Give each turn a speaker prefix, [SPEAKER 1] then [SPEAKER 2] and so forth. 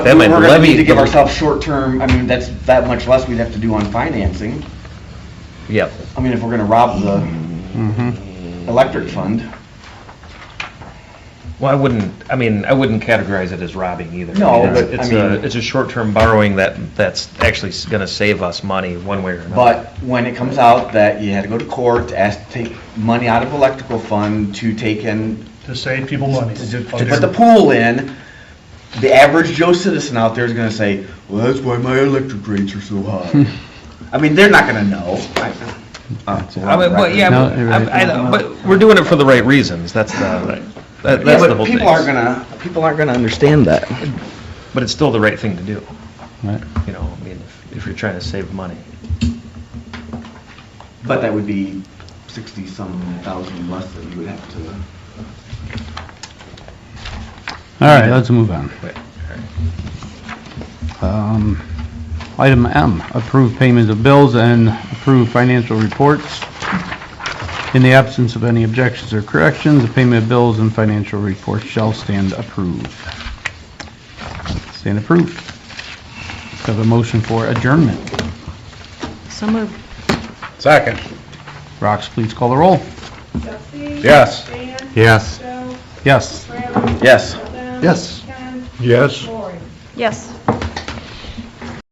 [SPEAKER 1] That might
[SPEAKER 2] We're gonna
[SPEAKER 1] levy-
[SPEAKER 2] need to give ourselves short-term, I mean, that's that much less we'd have to do on financing.
[SPEAKER 1] Yep.
[SPEAKER 2] I mean, if we're gonna rob the
[SPEAKER 3] Mm-hmm.
[SPEAKER 2] electric fund.
[SPEAKER 1] Well, I wouldn't, I mean, I wouldn't categorize it as robbing either.
[SPEAKER 2] No,
[SPEAKER 1] I mean, it's-
[SPEAKER 2] but, I
[SPEAKER 1] It's a,
[SPEAKER 2] mean-
[SPEAKER 1] it's a short-term borrowing that, that's actually s- gonna save us money one way or another.
[SPEAKER 2] But when it comes out that you had to go to court to ask to take money out of electrical fund to take in,
[SPEAKER 3] to save people money.
[SPEAKER 2] to put the pool in, the average Joe citizen out there is gonna say, well, that's why my electric rates are so high. I mean, they're not gonna know. I- uh, it's a
[SPEAKER 1] I
[SPEAKER 2] lot
[SPEAKER 1] mean,
[SPEAKER 2] of
[SPEAKER 1] but, yeah,
[SPEAKER 2] record.
[SPEAKER 4] No,
[SPEAKER 1] but,
[SPEAKER 4] you're
[SPEAKER 1] I- I
[SPEAKER 4] right.
[SPEAKER 1] know, but we're doing it for the right reasons, that's the, that-
[SPEAKER 2] Yeah,
[SPEAKER 1] that's the
[SPEAKER 2] but
[SPEAKER 1] whole thing.
[SPEAKER 2] people aren't gonna, people aren't gonna understand that.
[SPEAKER 1] But it's still the right thing to do,
[SPEAKER 4] Right.
[SPEAKER 1] you know, I mean, if- if you're trying to save money.
[SPEAKER 2] But that would be sixty-some thousand less that you would have to.
[SPEAKER 4] All right, let's move on.
[SPEAKER 1] Wait, all right.
[SPEAKER 4] Um, Item M, approve payments of bills and approve financial reports. In the absence of any objections or corrections, the payment of bills and financial reports shall stand approved. Stand approved. Let's Have a motion for adjournment.
[SPEAKER 5] So moved.
[SPEAKER 6] Second.
[SPEAKER 4] Rox, please call the roll.
[SPEAKER 7] Dusty?
[SPEAKER 6] Yes.
[SPEAKER 7] Dan?
[SPEAKER 6] Yes.
[SPEAKER 7] Joe?
[SPEAKER 4] Yes.
[SPEAKER 7] Bradley?
[SPEAKER 2] Yes.
[SPEAKER 7] Don? Ken?
[SPEAKER 6] Yes.
[SPEAKER 7] Lori?
[SPEAKER 5] Yes.